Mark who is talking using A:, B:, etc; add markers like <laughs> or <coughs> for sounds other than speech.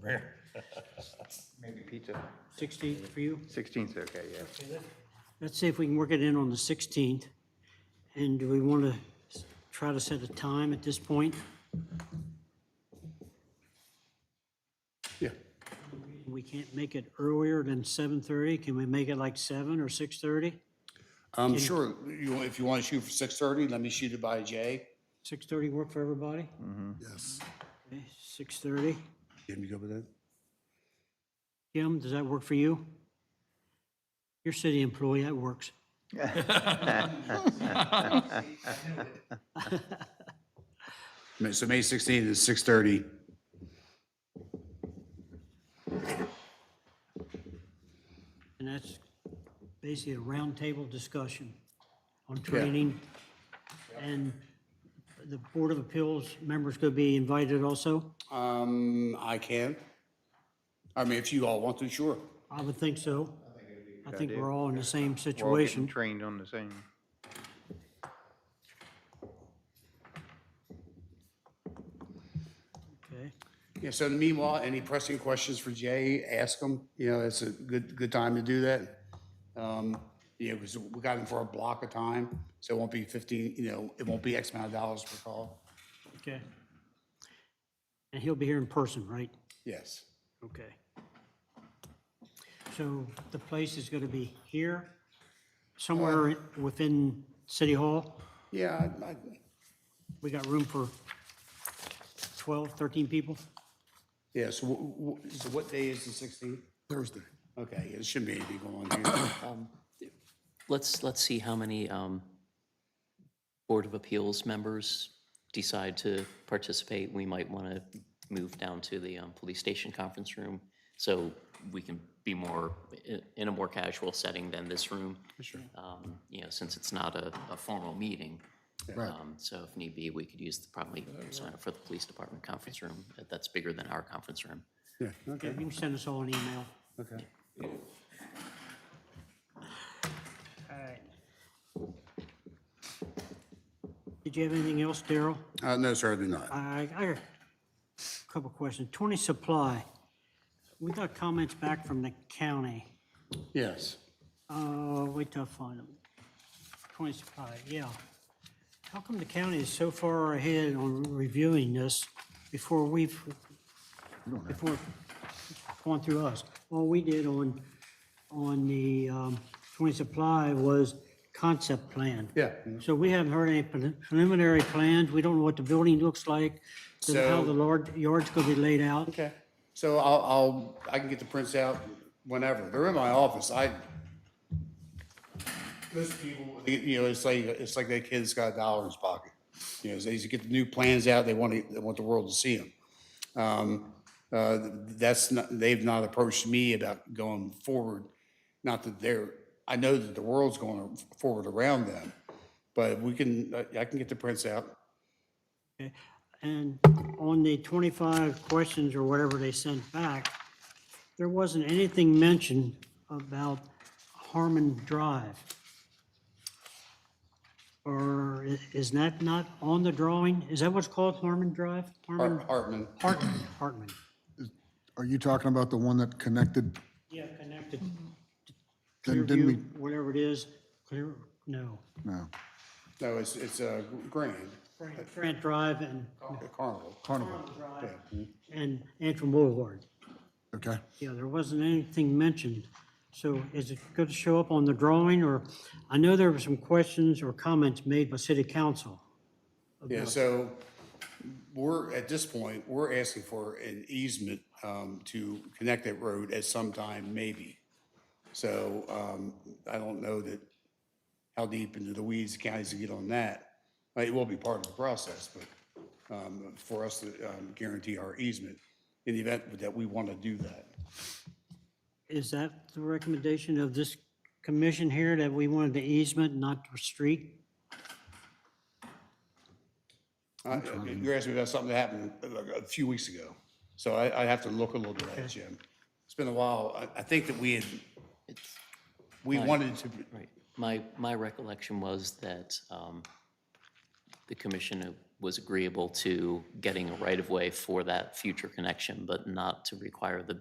A: <laughs>
B: there.
A: Maybe pizza.
C: 16th for you?
A: 16th, okay, yeah.
C: Let's see if we can work it in on the 16th. And do we want to try to set a time at this point?
B: Yeah.
C: We can't make it earlier than 7:30. Can we make it like 7 or 6:30?
D: Um, sure, you, if you want to shoot for six thirty, let me shoot it by Jay.
C: 6:30 work for everybody?
B: Yes.
C: Okay, 6:30.
B: Can you go with that?
C: Kim, does that work for you? Your city employee, that works.
D: May- So May sixteenth is six thirty.
C: And that's basically a roundtable discussion on training. And the Board of Appeals members could be invited also?
D: Um, I can. I mean, if you all want to, sure.
C: I would think so. I think we're all in the same
A: We're all getting
C: situation.
A: trained on the same.
C: Okay.
D: Yeah, so meanwhile, any pressing questions for Jay, ask him, you know, it's a good, good time to do that. Um, you know, because we got him for a block of time, so it won't be fifteen, you know, it won't be X amount of dollars per call.
C: Okay. And he'll be here in person, right?
D: Yes.
C: Okay. So the place is going to be here, somewhere within City Hall?
D: Yeah, I, I-
C: We got room for 12, 13 people?
D: yeah, so, wh- wh- so what day is the sixteenth?
B: Thursday.
D: Okay, it shouldn't be anything going <coughs> on here.
E: Let's, let's see how many um, Board of Appeals members decide to participate. We might want to move down to the um, police station conference room so we can be more, i- in a more casual setting than this room. Sure. You know, since it's not a, a formal meeting.
B: Right.
E: Um, So if need be, we could use, the probably sign up for the police department conference room. That- That's bigger than our conference room.
D: Yeah,
C: Yeah,
D: okay,
C: You can send us all an email.
D: okay.
C: All right. Did you have anything else, Daryl?
D: Uh, no, sir, I do not.
C: I, I got a couple questions. 20 supply. We got comments back from the county.
D: Yes.
C: Uh, wait till I find them. 20 supply, yeah. How come the county is so far ahead on reviewing this before we've, before it's gone through us? All we did on, on the um, 20 supply was concept plan.
D: Yeah.
C: So we haven't heard any pre- preliminary plans. We don't know what the building looks like, so how
D: So-
C: the lard- yard's going to be laid out.
D: Okay. So I'll, I'll, I can get the prints out whenever. They're in my office. I, most people, you know, it's like, it's like that kid's got a dollar in his pocket. You know, they just get the new plans out, they want, to- they want the world to see them. Uh, that's not, they've not approached me about going forward. Not that they're, I know that the world's going forward around them, but we can, I I can get the prints out.
C: And on the 25 questions or whatever they sent back, there wasn't anything mentioned about Harmon Drive. Or i- is that not on the drawing? Is that what's called Harmon Drive?
D: Har-
C: Harmon,
D: Hartman.
C: Hartman, Hartman.
F: Are you talking about the one that connected?
C: Yeah, connected.
F: Didn't- didn't we-
C: Clearview, whatever it is, clear, no.
F: No,
D: No, it's, it's uh, Grand,
C: Grant Drive and,
D: Carnival.
F: Carnival,
C: and Antrim Boulevard.
F: okay?
C: Yeah, there wasn't anything mentioned. So is it going to show up on the drawing, or, I know there were some questions or comments made by city council.
D: Yeah, so we're, at this point, we're asking for an easement um, to connect that road at some time, maybe. So um, I don't know that, how deep into the weeds the counties can get on that. Uh, It will be part of the process, but um, for us to um, guarantee our easement in the event that we want to do that.
C: Is that the recommendation of this commission here, that we wanted the easement, not the street?
D: Uh, You're asking me about something that happened uh, a few weeks ago, so I, I have to look a little bit at it, Jim. It's been a while. I, I think that we had,
E: It's,
D: we wanted to,
E: Right. My, my recollection was that um, the commission was agreeable to getting a right-of-way for that future connection, but not to require the